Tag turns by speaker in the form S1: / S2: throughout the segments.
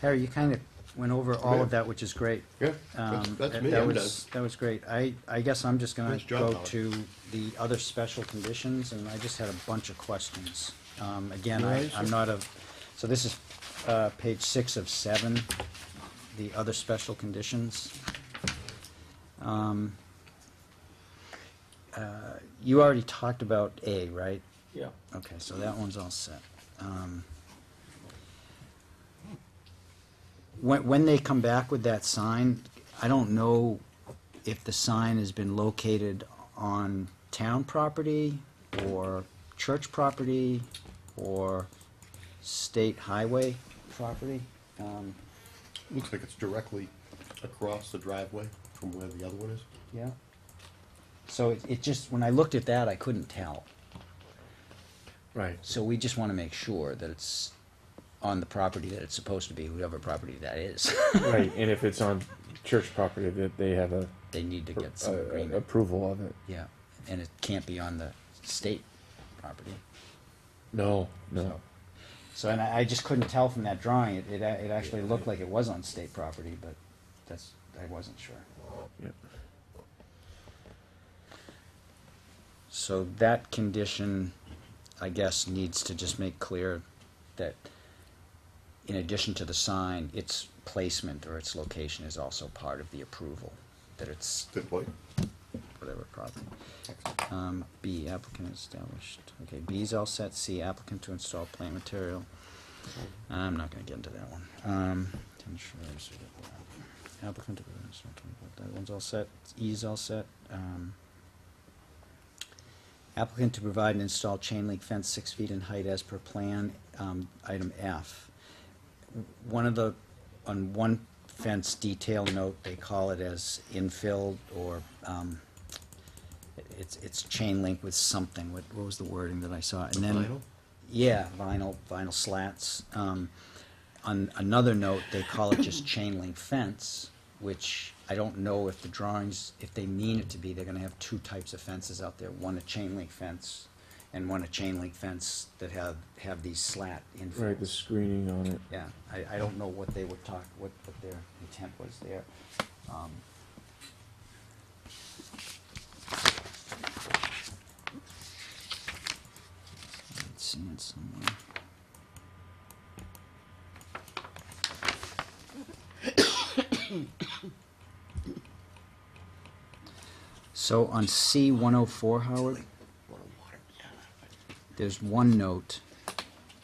S1: Harry, you kind of went over all of that, which is great.
S2: Yeah,
S1: Um,
S2: that's, that's
S1: that-
S2: me,
S1: that
S2: I'm done.
S1: was- That was great. I, I guess I'm just gonna
S2: Nice job,
S1: go
S2: Howard.
S1: to the other special conditions, and I just had a bunch of questions. Um, again, I,
S2: Nice.
S1: I'm not a, so this is, uh, page six of seven, the other special conditions. Um, uh, You already talked about A, right?
S2: Yeah.
S1: Okay, so that one's all set. Um, When, when they come back with that sign, I don't know if the sign has been located on town property or church property or state highway property. Um,
S2: Looks like it's directly across the driveway from where the other one is.
S1: Yeah. So it, it just, when I looked at that, I couldn't tell.
S2: Right.
S1: So we just wanna make sure that it's on the property that it's supposed to be, whatever property that is.
S3: Right, and if it's on church property, that they have a,
S1: They need to get
S3: a-
S1: some
S3: a-
S1: agreement,
S3: approval of it.
S1: yeah, and it can't be on the state property.
S3: No, no.
S1: So, and I, I just couldn't tell from that drawing, it, it, a- it actually looked like it was on state property, but that's, I wasn't sure.
S3: Yep.
S1: So that condition, I guess, needs to just make clear that in addition to the sign, its placement or its location is also part of the approval, that it's
S2: Good point.
S1: whatever property. Um, B, applicant established, okay, B's all set, C, applicant to install plant material. I'm not gonna get into that one. Um, ten shrubs, we got that. Applicant to install plant- that one's all set, E's all set, um. Applicant to provide and install chain link fence six feet in height as per plan, um, item F. W- One of the, on one fence detail note, they call it as infilled or, um, it- it's, it's chain link with something, what, what was the wording that I saw? And then
S2: Vinyl?
S1: Yeah, vinyl, vinyl slats. Um, on another note, they call it just chain link fence, which I don't know if the drawings, if they mean it to be, they're gonna have two types of fences out there, one a chain link fence and one a chain link fence that have, have these slat infills.
S3: Right, the screening on it.
S1: Yeah, I, I don't know what they were talk, what, what their intent was there. Um, Let's see it somewhere. So on C one oh four, Howard, there's one note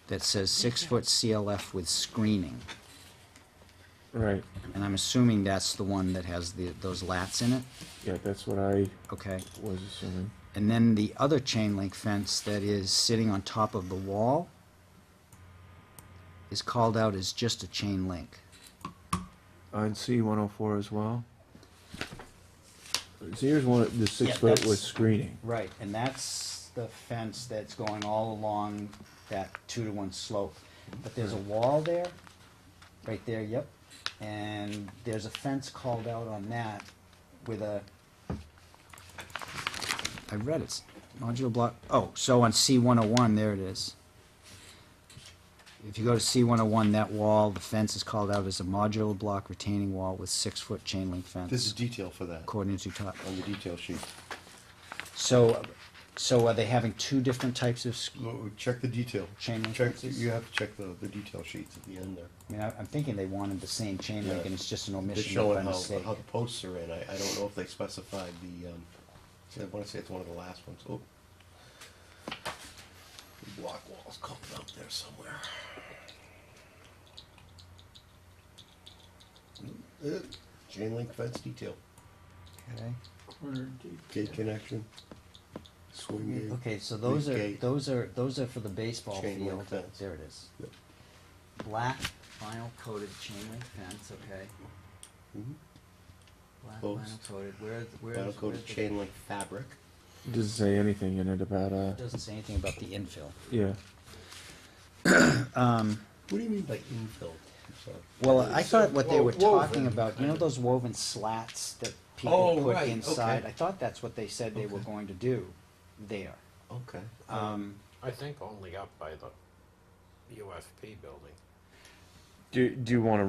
S1: that says six-foot CLF with screening.
S3: Right,
S1: And I'm assuming that's the one that has the, those lats in it,
S3: yeah, that's what I
S1: okay?
S3: was assuming.
S1: And then the other chain link fence that is sitting on top of the wall is called out as just a chain link.
S3: On C one oh four as well? So here's one, the
S1: Yeah,
S3: six foot
S1: that's-
S3: with screening.
S1: Right, and that's the fence that's going all along that two-to-one slope. But there's a wall there, right there, yep. And there's a fence called out on that with a, I read it, modular block, oh, so on C one oh one, there it is. If you go to C one oh one, that wall, the fence is called out as a modular block retaining wall with six-foot chain link fence.
S2: This is detail for that,
S1: According to top.
S2: on the detail sheet.
S1: So, so are they having two different types of, sc-
S2: Well, Check the detail.
S1: Chain link
S2: Check,
S1: fences?
S2: you have to check the, the detail sheets at the end there.
S1: I mean, I- I'm thinking they wanted the same chain link and it's just an
S2: They're
S1: omission by
S2: showing how,
S1: mistake.
S2: how the posts are in, I, I don't know if they specified the, um, I wanna say it's one of the last ones, oh. The Block wall's coming up there somewhere. Eh, Chain link fence detail,
S1: Okay.
S2: gate connection, swing gate.
S1: Okay, so those are,
S2: Gate.
S1: those are, those are for the baseball
S2: Chain link
S1: field.
S2: fence.
S1: There it is.
S2: Yep.
S1: Black vinyl coated chain link fence, okay.
S2: Mhm.
S1: Black
S2: Post.
S1: vinyl coated, where, where is?
S2: Vinyl
S1: where's
S2: coated
S1: the-
S2: chain link fabric.
S3: Doesn't say anything in it about, uh,
S1: it Doesn't say anything about the infill.
S3: yeah.
S2: What do you mean by infill? I'm sorry.
S1: Well, I thought what they were
S2: Wo- woven,
S1: talking about, you know
S2: kinda.
S1: those woven slats that people
S2: Oh,
S1: put
S2: right,
S1: inside?
S2: okay.
S1: I thought that's what they said they were
S2: Okay.
S1: going to do there.
S2: Okay.
S1: Um,
S4: I think only up by the UFP building.
S3: Do, do you wanna